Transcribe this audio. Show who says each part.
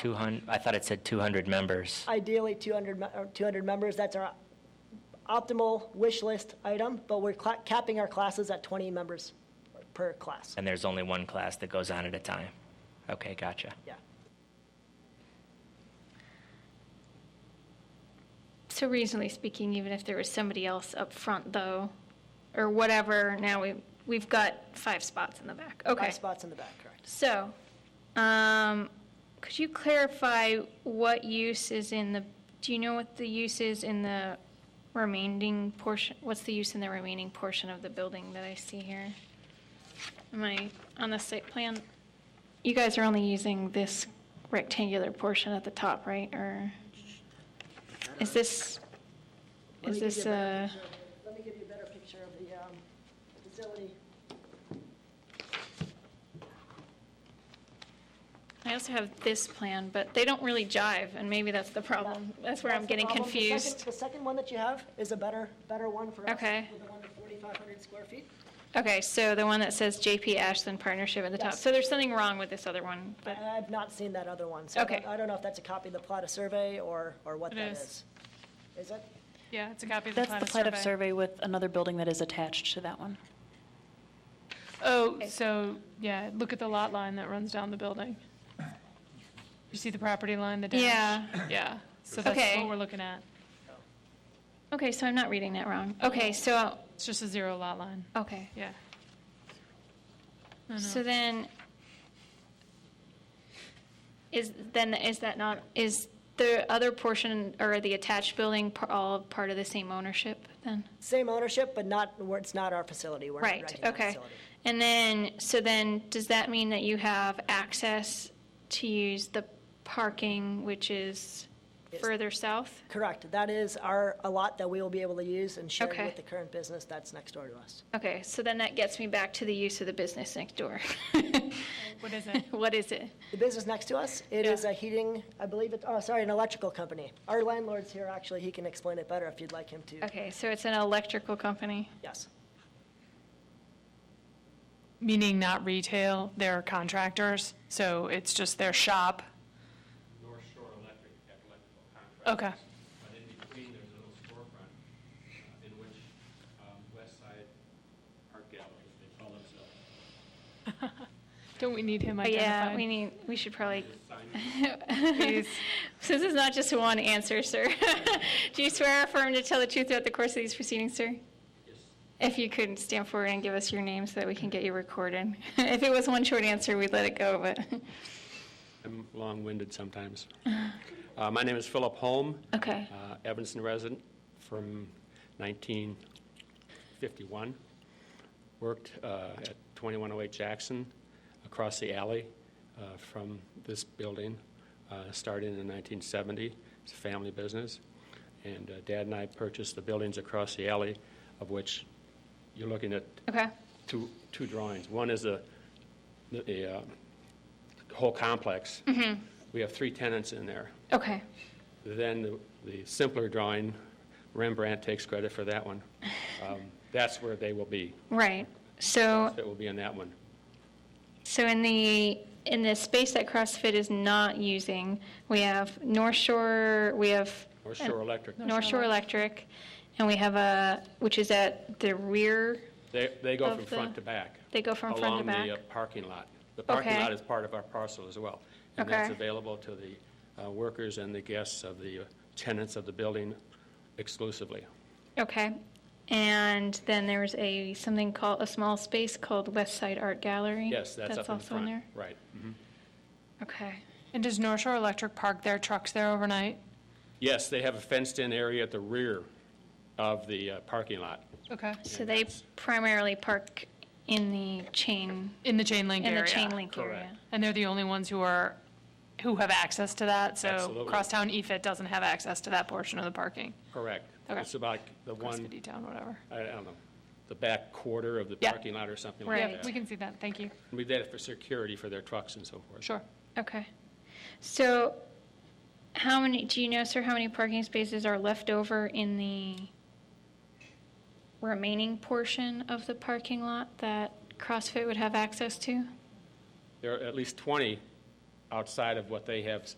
Speaker 1: 200, I thought it said 200 members.
Speaker 2: Ideally, 200, me- or 200 members, that's our optimal wish list item, but we're cla- capping our classes at 20 members per class.
Speaker 1: And there's only one class that goes on at a time. Okay, gotcha.
Speaker 2: Yeah.
Speaker 3: So reasonably speaking, even if there was somebody else up front though, or whatever, now we, we've got five spots in the back. Okay.
Speaker 2: Five spots in the back, correct.
Speaker 3: So, um, could you clarify what use is in the, do you know what the use is in the remaining portion? What's the use in the remaining portion of the building that I see here? Am I on the site plan? You guys are only using this rectangular portion at the top, right? Or is this,
Speaker 2: Let me
Speaker 3: is
Speaker 2: give
Speaker 3: this
Speaker 2: you a better
Speaker 3: a,
Speaker 2: picture. Let me give you a better picture of the um, facility.
Speaker 3: I also have this plan, but they don't really jive and maybe that's the problem. That's where I'm
Speaker 2: the
Speaker 3: getting
Speaker 2: problem. The second-
Speaker 3: confused.
Speaker 2: The second one that you have is a better, better one for us.
Speaker 3: Okay.
Speaker 2: With the one to 4,500 square feet.
Speaker 3: Okay, so the one that says JP Ashland Partnership at the top.
Speaker 2: Yes.
Speaker 3: So there's something wrong with this other one,
Speaker 2: I-
Speaker 3: but,
Speaker 4: Uh,
Speaker 2: I've not seen that other one, so I
Speaker 3: Okay.
Speaker 2: don't- I don't know if that's a copy of the Plata survey or, or what
Speaker 5: It
Speaker 2: that
Speaker 5: is.
Speaker 2: is. Is it?
Speaker 5: Yeah, it's a copy of the
Speaker 4: That's
Speaker 5: plat
Speaker 4: the
Speaker 5: of
Speaker 4: plat of
Speaker 5: survey.
Speaker 4: survey with another building that is attached to that one.
Speaker 5: Oh, so, yeah, look at the lot line that runs down the building. You see the property line, the dash?
Speaker 3: Yeah.
Speaker 5: Yeah, so that's
Speaker 3: Okay.
Speaker 5: what we're looking at.
Speaker 3: okay, so I'm not reading that wrong. Okay, so,
Speaker 5: It's just a zero lot line,
Speaker 3: okay.
Speaker 5: yeah.
Speaker 3: Oh. So then, is, then, is that not, is the other portion or the attached building par- all part of the same ownership then?
Speaker 2: Same ownership, but not, we're- it's not our facility. We're not
Speaker 3: Right,
Speaker 2: renting that
Speaker 3: okay.
Speaker 2: facility.
Speaker 3: And then, so then, does that mean that you have access to use the parking, which is
Speaker 2: Yes.
Speaker 3: further south?
Speaker 2: Correct. That is our, a lot that we will be able to use and share
Speaker 3: Okay.
Speaker 2: with the current business that's next door to us.
Speaker 3: Okay, so then that gets me back to the use of the business next door.
Speaker 5: What is it?
Speaker 3: What is it?
Speaker 2: The business next to us, it is a heating, I believe it, oh, sorry, an electrical company. Our landlord's here, actually, he can explain it better if you'd like him to.
Speaker 3: Okay, so it's an electrical company.
Speaker 2: Yes.
Speaker 5: Meaning not retail, they're contractors, so it's just their shop.
Speaker 6: North Shore Electric, have electrical contract.
Speaker 5: Okay,
Speaker 6: But in between, there's a little storefront uh, in which um, West Side Art Gallery, they call themselves,
Speaker 5: don't we need him
Speaker 3: But Oh, yeah, we
Speaker 5: identified?
Speaker 3: need, we should probably,
Speaker 6: is signing
Speaker 5: Please.
Speaker 3: so this is not just one answer, sir. Do you swear or affirm to tell the truth throughout the course of these proceedings, sir? If you could stand forward and give us your name so that we can get you recorded. If it was one short answer, we'd let it go, but,
Speaker 6: I'm long-winded sometimes. Uh, My name is Philip Holm,
Speaker 3: okay.
Speaker 6: uh, Evanston resident from 1951. Worked uh, at 2108 Jackson, across the alley uh, from this building, uh, started in 1970. It's a family business. And uh, Dad and I purchased the buildings across the alley, of which you're looking at
Speaker 3: Okay,
Speaker 6: two, two drawings. One is the, the uh, whole complex. We have three tenants in there.
Speaker 3: okay.
Speaker 6: Then the- the simpler drawing, Rembrandt takes credit for that one. Um, That's where they will be.
Speaker 3: Right. So
Speaker 6: It will be in that one.
Speaker 3: So in the, in the space that CrossFit is not using, we have North Shore, we have
Speaker 6: North Shore Electric.
Speaker 3: North Shore Electric, and we have a, which is at the rear,
Speaker 6: They, they go
Speaker 3: Of
Speaker 6: from front
Speaker 3: the-
Speaker 6: to back.
Speaker 3: they go from front to
Speaker 6: Along the uh,
Speaker 3: back.
Speaker 6: parking lot. The parking
Speaker 3: Okay.
Speaker 6: lot is part of our parcel as well. And that's
Speaker 3: Okay.
Speaker 6: available to the uh, workers and the guests of the uh, tenants of the building exclusively.
Speaker 3: Okay. And then there's a, something called, a small space called West Side Art Gallery.
Speaker 6: Yes, that's up in the
Speaker 3: also
Speaker 6: front.
Speaker 3: in there.
Speaker 6: Right.
Speaker 3: Okay.
Speaker 5: And does North Shore Electric park their trucks there overnight?
Speaker 6: Yes, they have a fenced-in area at the rear of the uh, parking lot.
Speaker 5: Okay.
Speaker 3: So they primarily park in the chain,
Speaker 5: In the chain link
Speaker 3: in
Speaker 5: area?
Speaker 3: the chain link
Speaker 6: Correct.
Speaker 3: area.
Speaker 5: And they're the only ones who are, who have access to that, so
Speaker 6: Absolutely.
Speaker 5: Crosstown E EFIT doesn't have access to that portion of the parking.
Speaker 6: Correct.
Speaker 5: Okay.
Speaker 6: It's about the one,
Speaker 5: Crossfit E-Town, whatever.
Speaker 6: I I don't know, the back quarter of the
Speaker 5: Yeah.
Speaker 6: parking lot or something
Speaker 5: Yeah,
Speaker 6: like
Speaker 5: we
Speaker 6: that.
Speaker 5: can see that, thank you.
Speaker 6: We did it for security for their trucks and so forth.
Speaker 5: Sure.
Speaker 3: Okay. So how many, do you know, sir, how many parking spaces are left over in the remaining portion of the parking lot that CrossFit would have access to?
Speaker 6: There are at least 20 outside of what they have